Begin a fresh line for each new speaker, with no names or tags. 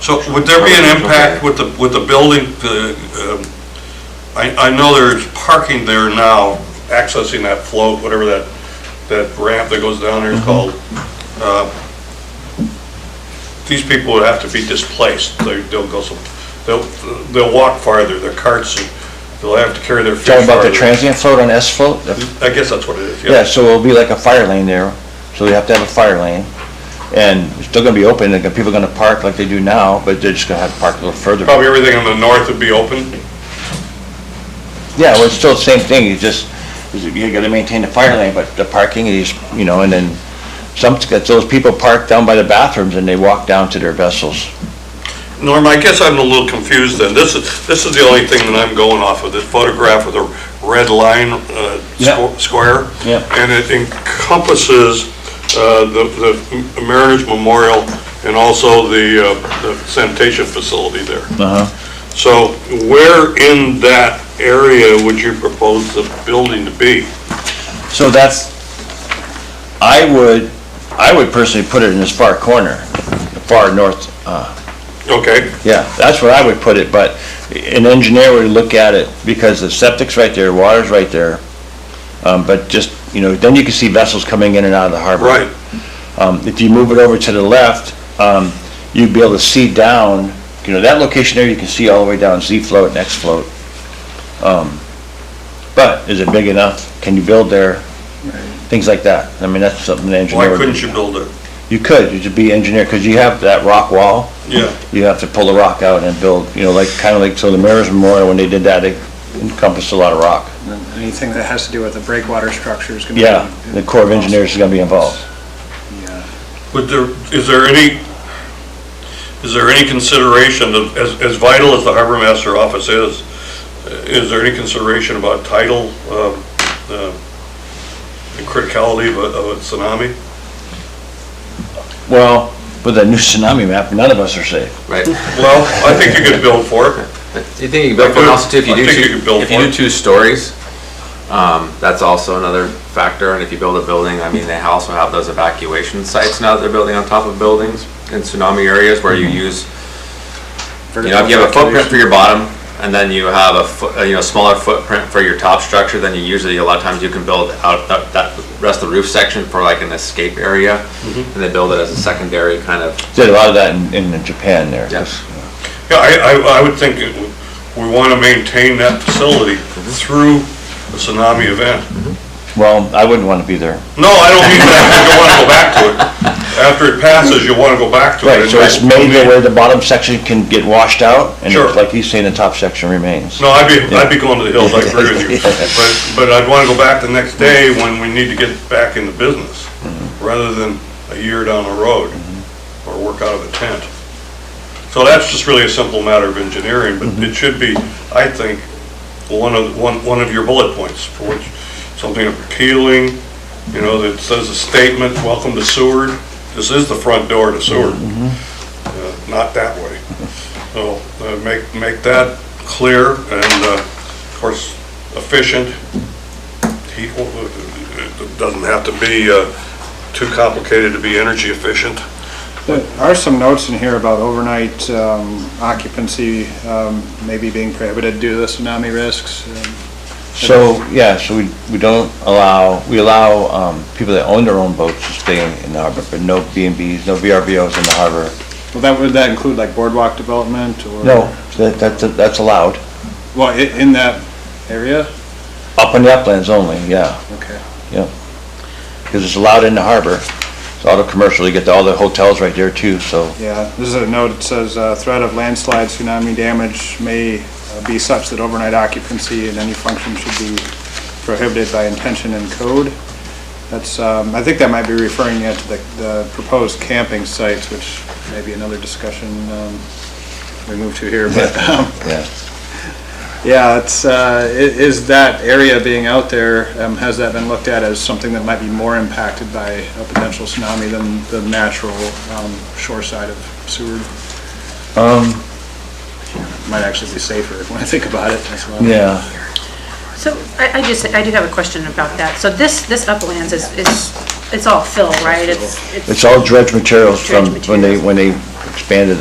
So would there be an impact with the, with the building, the, um, I, I know there's parking there now, accessing that float, whatever that, that ramp that goes down there
Mm-hmm.
is called. Uh, These people would have to be displaced, they, they'll go some, they'll, they'll walk farther, their carts, they'll have to carry their fish
Talking about the
farther.
transient float on S float?
I guess that's what it is,
Yeah,
yeah.
so it'll be like a fire lane there, so you have to have a fire lane. And it's still gonna be open, and people are gonna park like they do now, but they're just gonna have to park a little further.
Probably everything on the north would be open.
Yeah, well, it's still the same thing, you just, you gotta maintain the fire lane, but the parking is, you know, and then some, those people park down by the bathrooms and they walk down to their vessels.
Norm, I guess I'm a little confused then. This is, this is the only thing that I'm going off of, this photograph with a red line uh,
Yeah.
squ- square.
Yeah.
And it encompasses uh, the the Mariners Memorial and also the uh, the sanitation facility there.
Uh-huh.
So where in that area would you propose the building to be?
So that's, I would, I would personally put it in this far corner, the far north, uh,
Okay,
Yeah, that's where I would put it, but an engineer would look at it, because the septic's right there, water's right there. Um, but just, you know, then you can see vessels coming in and out of the harbor.
right.
Um, if you move it over to the left, um, you'd be able to see down, you know, that location there, you can see all the way down Z float and X float. Um, but is it big enough? Can you build there? Things like that. I mean, that's something an
Why
engineer would.
couldn't you build it?
You could, you could be engineer, because you have that rock wall
Yeah.
you have to pull the rock out and build, you know, like, kind of like, so the Mariners Memorial, when they did that, it encompassed a lot of rock.
Anything that has to do with the breakwater structure is going to be...
Yeah, the Corps of Engineers is gonna be involved.
Yeah.
Would there, is there any, is there any consideration, of- as, as vital as the harbor master office is, uh, is there any consideration about tidal, um, uh, the criticality of a, of a tsunami?
Well, with that new tsunami map, none of us are safe.
Right.
Well, I think you could build for it.
You think you can build for it also too, if you
I
do
think you
two,
could build
if you
for
do
it.
two stories, um, that's also another factor, and if you build a building, I mean, they also have those evacuation sites now that they're building on top of buildings in tsunami areas where you
Mm-hmm.
use, you know, if you have a footprint for your bottom, and then you have a, fo- uh, you know, smaller footprint for your top structure, then you usually, a lot of times you can build out that, that rest of the roof section for like an escape area,
Mm-hmm.
and they build it as a secondary kind of
Did a lot of that in, in Japan there.
Yes.
Yeah, I, I, I would think it would- we want to maintain that facility through a tsunami event.
Well, I wouldn't wanna be there.
No, I don't mean that, you want to go back to it. After it passes, you want to go back to it.
Right, so it's
And
made where the bottom section can get washed out, and
Sure.
like he's saying, the top section remains.
No, I'd be, I'd be going to the hills, I agree with you.
Yeah.
But, but I'd want to go back the next day when we need to get back into business, rather than a year down the road, or work out of a tent. So that's just really a simple matter of engineering, but it should be, I think, one of, one, one of your bullet points, for which, something appealing, you know, that says a statement, welcome to Seward, this is the front door to Seward. Uh, Not that way. So, uh, make, make that clear and, uh, of course, efficient. Heat, it doesn't have to be, uh, too complicated to be energy efficient.
There are some notes in here about overnight um, occupancy um, maybe being prohibited due to the tsunami risks. um,
So, yeah, so we, we don't allow, we allow, um, people that own their own boats to stay in- in the harbor, but no B and Bs, no VRBOs in the harbor.
Well, that, would that include like boardwalk development or?
No, that, that, that's allowed.
Well, i- in that area?
Up in the uplands only, yeah,
Okay.
because it's allowed in the harbor. It's auto commercial, you get all the hotels right there too, so,
Yeah, this is a note, that says uh, threat of landslide, tsunami damage may uh, be such that overnight occupancy in any function should be prohibited by intention and code. That's, um, I think that might be referring yet to the- the proposed camping sites, which may be another discussion um, we move to here, but, um,
yeah.
yeah, it's, uh, i- is that area being out there, um, has that been looked at as something that might be more impacted by a potential tsunami than the natural um, shore side of Seward?
Um,
might actually be safer when I think about it. That's why.
yeah.
So I, I just, I do have a question about that. So this, this uplands is, is, it's all fill, right? It's
It's all dredge materials from
Dredge
when they, when they expanded